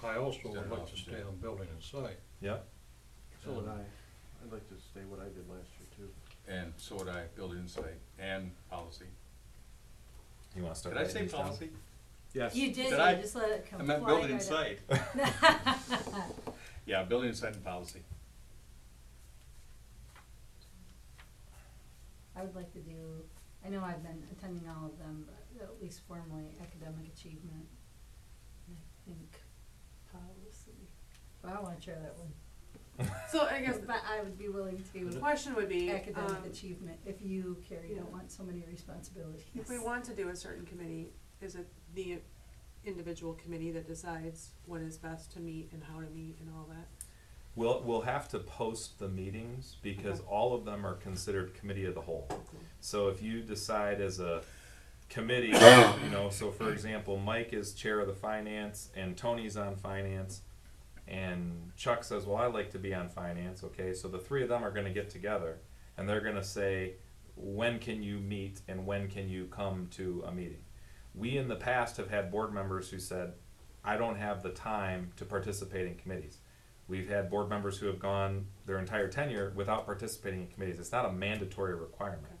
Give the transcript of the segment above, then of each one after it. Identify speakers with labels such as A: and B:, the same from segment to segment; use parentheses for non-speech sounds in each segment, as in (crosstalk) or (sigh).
A: also would
B: General
A: like to
B: office,
A: stay
B: yeah.
A: on building and site.
C: Yeah,
D: So would I. Um, I'd like to stay what I did last year too.
B: And so would I, building insight and policy.
C: you wanna start
B: Did I
C: writing
B: say
C: these down?
B: policy?
D: Yes.
E: You did,
B: Did
E: you
B: I-
E: just let it come
B: I
E: flying
B: meant building
E: right out.
B: insight. Yeah, building insight and policy.
E: I would like to do, I know I've been attending all of them, but at least formally academic achievement. and I think policy, but I wanna share that one.
F: So I guess
E: But I would be willing
F: the
E: to
F: question would be, um,
E: academic achievement if you, Carrie,
F: yeah.
E: don't want so many responsibilities.
F: if we want to do a certain committee, is it the individual committee that decides what is best to meet and how to meet and all that?
C: (laughs) We'll, we'll have to post the meetings because
F: Okay.
C: all of them are considered committee of the whole. So if you decide as a committee, you know, so for example, Mike is chair of the finance and Tony's on finance. And Chuck says, well, I like to be on finance, okay, so the three of them are gonna get together and they're gonna say, when can you meet and when can you come to a meeting? We in the past have had board members who said, I don't have the time to participate in committees. We've had board members who have gone their entire tenure without participating in committees. It's not a mandatory requirement.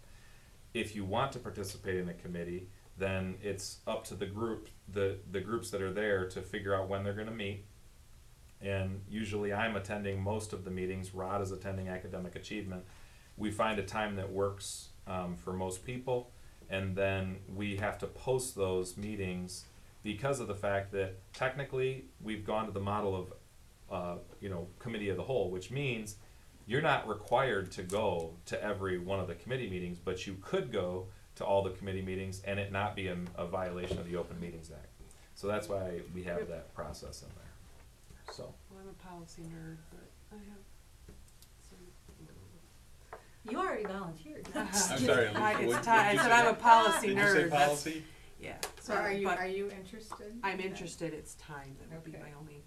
C: If you want to participate in a committee, then it's up to the group, the, the groups that are there to figure out when they're gonna meet. And usually I'm attending most of the meetings, Rod is attending academic achievement. We find a time that works, um, for most people. And then we have to post those meetings because of the fact that technically we've gone to the model of uh, you know, committee of the whole, which means you're not required to go to every one of the committee meetings, but you could go to all the committee meetings and it not be a, a violation of the Open Meetings Act. So that's why we have that process in there. So,
F: Well, I'm a policy nerd, but I have some.
E: You already volunteered.
F: (laughs)
B: I'm sorry, Alicia,
F: I,
B: what-
F: it's
B: what
F: tied,
B: did
F: I
B: you
F: said I'm a
B: say?
F: policy
B: Did
F: nerd.
B: you say
F: that's-
B: policy?
F: Yeah.
G: So are you,
F: but
G: are you interested?
F: I'm
G: Okay.
F: interested, it's time, that would be
G: Okay.
F: my only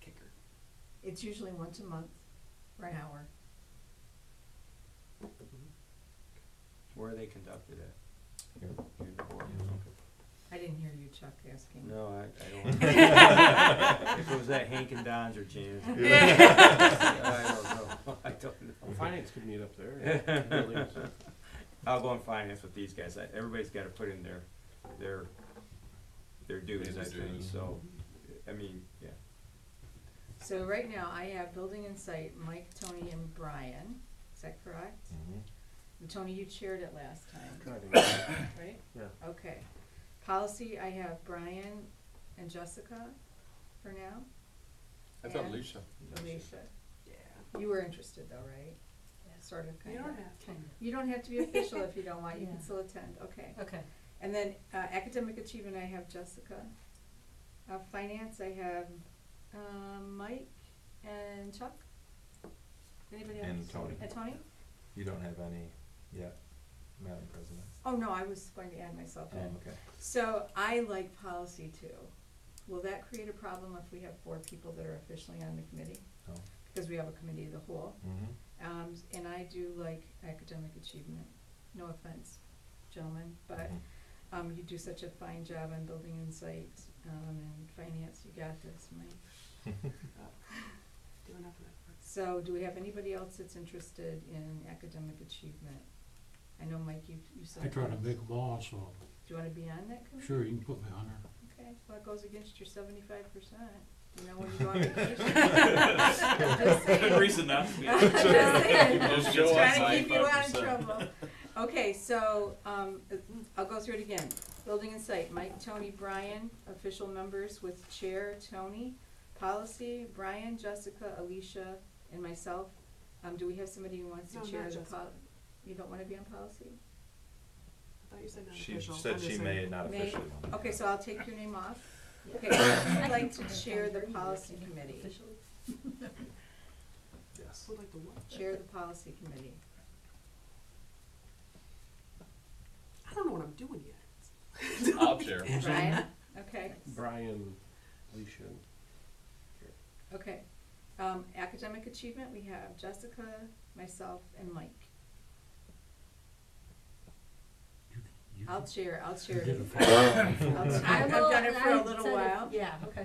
F: kicker.
G: It's usually once a month for an hour.
H: Where are they conducted at?
C: Here.
H: Here in the boardroom?
G: I didn't hear you, Chuck, asking.
H: No, I, I don't. If it was at Hank and Don's or Jan's. I don't know, I don't know.
D: Well, finance could meet up (laughs) there. Really, so.
H: I'll go on finance with these guys, I, everybody's gotta put in their, their, their dues, I
B: Their
H: think,
B: dues.
H: so, I mean, yeah.
G: So right now, I have Building Insight, Mike, Tony, and Brian. Is that correct?
C: Mm-hmm.
G: And Tony, you chaired it last time,
D: I think so.
G: right?
D: Yeah.
G: Okay. Policy, I have Brian and Jessica for now,
B: I thought
G: Yeah.
B: Alicia.
G: Alicia.
F: Yeah.
G: You were interested though, right? Sort of,
F: You
G: kind of.
F: don't have to.
E: Kind
G: You don't have to be official if you don't want, you
E: Yeah.
G: can still attend, okay.
E: of. (laughs) Okay.
G: And then uh, academic achievement, I have Jessica. Uh, finance, I have um, Mike and Chuck. Anybody else?
C: And Tony.
G: And Tony?
C: you don't have any yet, Madam President?
G: Oh, no, I was going to add myself
C: Oh,
G: in.
C: okay.
G: So I like policy too. Will that create a problem if we have four people that are officially on the committee?
C: No.
G: Because we have a committee of the whole.
C: Mhm.
G: Um, and I do like academic achievement. No offense, gentlemen, but
C: Mhm.
G: Um, you do such a fine job on building insight, um, and finance, you got this, Mike.
F: Do enough of that.
G: So do we have anybody else that's interested in academic achievement? I know, Mike, you, you said.
A: I tried to make them all, so
G: Do you wanna be on that committee?
A: sure, you can put me on there.
G: Okay, well, it goes against your sevenfive percent, you know, when you
A: (laughs)
G: go on vacation. (laughs) Just saying.
H: reason not
C: Mm-hmm.
G: (laughs)
H: to be.
G: Just
B: Just
G: saying.
B: show us
G: Trying to keep you out of
H: 95%.
G: trouble. Okay, so, um, I'll go through it again. Building Insight, Mike, Tony, Brian, official members with Chair Tony, Policy, Brian, Jessica, Alicia, and myself. Um, do we have somebody who wants to
F: No,
G: chair
F: not
G: the
F: Jessica.
G: pol- you don't wanna be on policy?
F: I thought you said not
C: She
F: official. I'm
C: said
F: just
C: she
F: saying.
C: may not
G: May-
C: officially. want it.
G: Okay, so I'll take your name off. Okay, I'd like to chair the policy committee,
E: Official.
C: Yes.
F: Would like to what?
G: chair the policy committee.
F: I don't know what I'm doing yet. (laughs)
B: I'll share.
G: Brian, okay,
D: Brian, Alicia,
G: okay. Um, academic achievement, we have Jessica, myself, and Mike.
A: You
G: I'll
A: can-
G: chair, I'll
A: you
G: chair.
A: did it for
G: I'll chair. I've done it for a
E: I
G: little
E: said it-
G: while.
E: Yeah, okay.